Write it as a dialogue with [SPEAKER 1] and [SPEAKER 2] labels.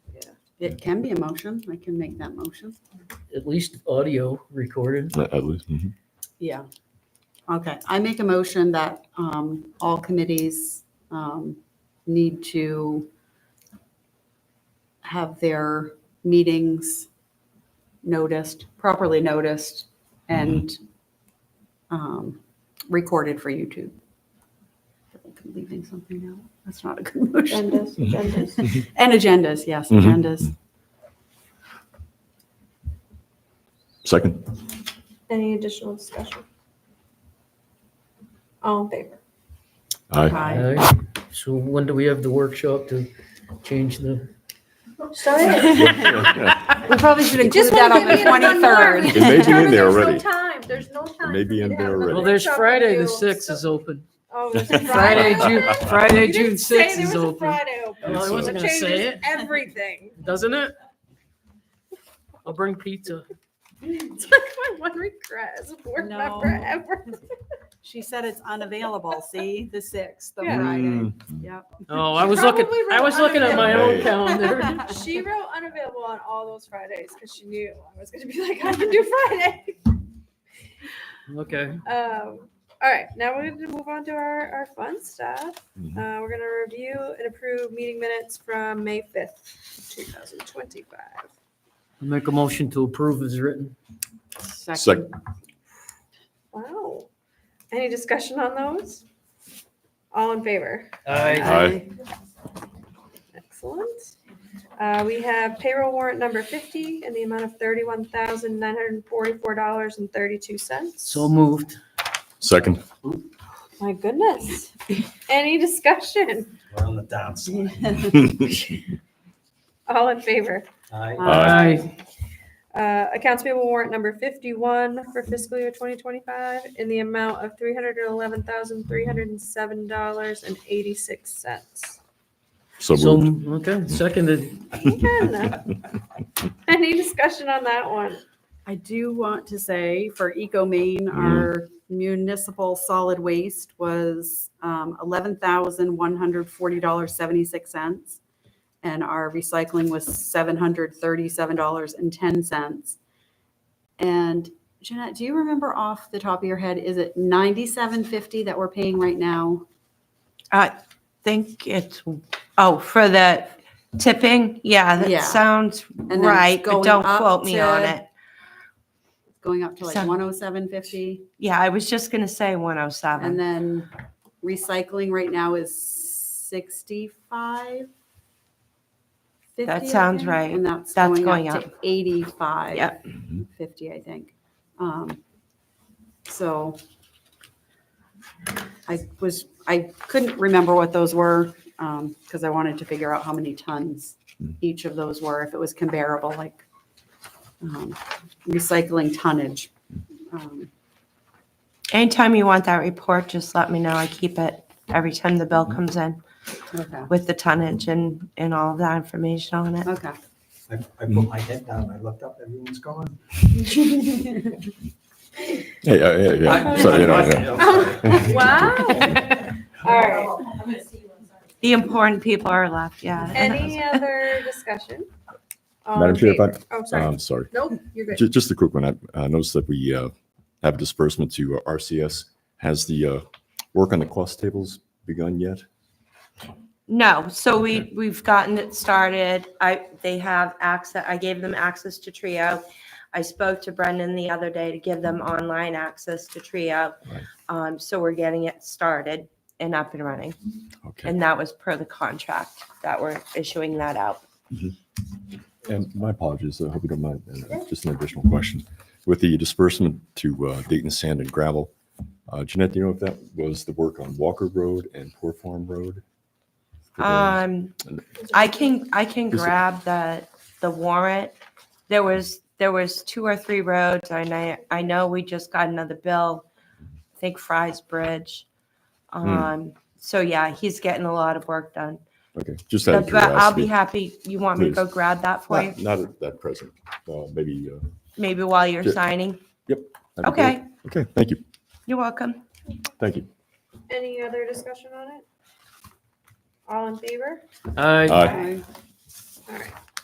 [SPEAKER 1] It can be a motion. I can make that motion.
[SPEAKER 2] at least audio recorded.
[SPEAKER 3] At at least, mhm.
[SPEAKER 1] Yeah. Okay, I make a motion that um, all committees um, need to have their meetings noticed, properly noticed, and um, recorded for YouTube. I think I'm leaving something out. That's not a good motion.
[SPEAKER 4] Agendas,
[SPEAKER 3] Mm-hmm.
[SPEAKER 4] agendas.
[SPEAKER 1] And agendas, yes,
[SPEAKER 3] Mhm.
[SPEAKER 1] agendas.
[SPEAKER 3] second.
[SPEAKER 4] Any additional discussion? All in favor?
[SPEAKER 3] Aye.
[SPEAKER 1] Aye.
[SPEAKER 2] Aye. So when do we have the workshop to change the?
[SPEAKER 3] It
[SPEAKER 1] We probably should include that on the 23rd.
[SPEAKER 3] It may be in there already.
[SPEAKER 4] There's no time, there's no time.
[SPEAKER 3] may be
[SPEAKER 4] for me
[SPEAKER 3] in
[SPEAKER 4] to
[SPEAKER 3] there
[SPEAKER 4] have the
[SPEAKER 3] already.
[SPEAKER 2] Well, there's
[SPEAKER 4] workshop
[SPEAKER 2] Friday, the
[SPEAKER 4] review.
[SPEAKER 2] sixth is open.
[SPEAKER 4] Oh, there's a
[SPEAKER 2] Friday, June, Friday,
[SPEAKER 4] You didn't
[SPEAKER 2] June
[SPEAKER 4] say
[SPEAKER 2] sixth
[SPEAKER 4] there
[SPEAKER 2] is
[SPEAKER 4] was a
[SPEAKER 2] open,
[SPEAKER 4] Friday open.
[SPEAKER 3] Well, I
[SPEAKER 4] So
[SPEAKER 3] wasn't
[SPEAKER 2] gonna say
[SPEAKER 4] changes
[SPEAKER 2] it.
[SPEAKER 4] Everything.
[SPEAKER 2] doesn't it? I'll bring pizza.
[SPEAKER 4] It's like my one regret as a board member
[SPEAKER 5] No.
[SPEAKER 4] ever.
[SPEAKER 5] She said it's unavailable, see, the sixth, the
[SPEAKER 4] Yeah.
[SPEAKER 1] eh?
[SPEAKER 3] Mm.
[SPEAKER 5] Friday.
[SPEAKER 3] Mm-hmm.
[SPEAKER 5] Yep.
[SPEAKER 2] Oh, I was looking,
[SPEAKER 4] Probably wrote
[SPEAKER 2] I was looking at my own
[SPEAKER 3] Hey.
[SPEAKER 2] calendar.
[SPEAKER 4] She wrote unavailable on all those Fridays because she knew I was gonna be like, I can do Friday.
[SPEAKER 2] Okay,
[SPEAKER 4] Um, all right, now we're gonna move on to our, our fun stuff.
[SPEAKER 3] Mhm.
[SPEAKER 4] Uh, we're gonna review and approve meeting minutes from May fifth, two thousand twenty-five.
[SPEAKER 2] I'll make a motion to approve as written.
[SPEAKER 3] Second.
[SPEAKER 4] Wow. Any discussion on those? All in favor?
[SPEAKER 2] Aye.
[SPEAKER 3] Aye.
[SPEAKER 4] Excellent. Uh, we have payroll warrant number fifty in the amount of thirty-one thousand nine hundred and forty-four dollars and thirty-two cents.
[SPEAKER 2] So moved.
[SPEAKER 3] Second.
[SPEAKER 4] My goodness. Any discussion?
[SPEAKER 6] We're on the dance.
[SPEAKER 4] All in favor?
[SPEAKER 6] Aye.
[SPEAKER 3] Aye.
[SPEAKER 2] Aye.
[SPEAKER 4] Uh, accounts payable warrant number fifty-one for fiscal year twenty twenty-five in the amount of three hundred and eleven thousand three hundred and seven dollars and eighty-six cents.
[SPEAKER 3] So
[SPEAKER 2] So,
[SPEAKER 3] moved.
[SPEAKER 2] okay, seconded.
[SPEAKER 4] Any discussion on that one?
[SPEAKER 1] I do want to say for EcoMaine, our municipal solid waste was um, $11,140.76. And our recycling was $737.10. And Jeanette, do you remember off the top of your head, is it 97.50 that we're paying right now?
[SPEAKER 7] I think it's, oh, for the tipping? Yeah,
[SPEAKER 1] Yeah.
[SPEAKER 7] that sounds
[SPEAKER 1] then it's
[SPEAKER 7] right, but
[SPEAKER 1] going
[SPEAKER 7] don't
[SPEAKER 1] up
[SPEAKER 7] quote me on
[SPEAKER 1] to-
[SPEAKER 7] it.
[SPEAKER 1] Going up to like
[SPEAKER 7] Seven.
[SPEAKER 1] 107.50?
[SPEAKER 7] Yeah, I was just gonna say
[SPEAKER 1] And
[SPEAKER 7] 107.
[SPEAKER 1] then recycling right now is sixty-five. 50, I
[SPEAKER 7] sounds
[SPEAKER 1] think,
[SPEAKER 7] right.
[SPEAKER 1] And that's
[SPEAKER 7] That's
[SPEAKER 1] going up
[SPEAKER 7] going
[SPEAKER 1] to eighty-five.
[SPEAKER 7] Yep.
[SPEAKER 3] Mhm.
[SPEAKER 1] Fifty, I think. Um, So I was, I couldn't remember what those were, um, because I wanted to figure out how many tons
[SPEAKER 3] Mm.
[SPEAKER 1] each of those were, if it was comparable, like um, recycling tonnage. Um,
[SPEAKER 7] Anytime you want that report, just let me know. I keep it every time the bill comes in
[SPEAKER 1] Okay,
[SPEAKER 7] with the tonnage and, and all of that information on it.
[SPEAKER 1] okay.
[SPEAKER 6] I, I put my head down, I looked up, everyone's gone.
[SPEAKER 3] Yeah, yeah, yeah, yeah. So, you know, yeah.
[SPEAKER 4] Wow. All right.
[SPEAKER 7] The important people are left, yeah.
[SPEAKER 4] Any other discussion? All
[SPEAKER 3] Madam
[SPEAKER 4] in
[SPEAKER 3] Chair, if I-
[SPEAKER 4] favor? Oh, sorry.
[SPEAKER 3] I'm sorry.
[SPEAKER 4] Nope, you're good.
[SPEAKER 3] Ju- Just a quick one. I uh, noticed that we uh, have disbursement to uh, RCS. Has the uh, work on the cost tables begun yet?
[SPEAKER 7] No, so we, we've gotten it started. I, they have access, I gave them access to Trio. I spoke to Brendan the other day to give them online access to Trio.
[SPEAKER 3] Right.
[SPEAKER 7] Um, so we're getting it started and up and running.
[SPEAKER 3] Okay.
[SPEAKER 7] And that was per the contract that we're issuing that out.
[SPEAKER 3] And my apologies. I hope you don't mind. uh, Just an additional question. With the disbursement to uh, Dayton Sand and Gravel, uh, Jeanette, do you know if that was the work on Walker Road and Poor Farm Road? For the-
[SPEAKER 7] Um, I can, I can
[SPEAKER 3] Is it-
[SPEAKER 7] grab the, the warrant. There was, there was two or three roads and I, I know we just got another bill. I think Fry's Bridge.
[SPEAKER 3] Hmm.
[SPEAKER 7] Um, so yeah, he's getting a lot of work done.
[SPEAKER 3] Okay, just out of
[SPEAKER 7] But I'll be
[SPEAKER 3] curiosity.
[SPEAKER 7] happy, you want me to go
[SPEAKER 3] Please.
[SPEAKER 7] grab that for you?
[SPEAKER 3] Not not at that present, Uh, maybe. uh,
[SPEAKER 7] Maybe while you're
[SPEAKER 3] Ju-
[SPEAKER 7] signing?
[SPEAKER 3] that'd be
[SPEAKER 7] Okay,
[SPEAKER 3] great. Okay, thank you,
[SPEAKER 7] you're welcome.
[SPEAKER 3] thank you.
[SPEAKER 4] Any other discussion on it? All in favor?
[SPEAKER 2] Aye.
[SPEAKER 3] Aye.
[SPEAKER 1] Okay.
[SPEAKER 4] All right.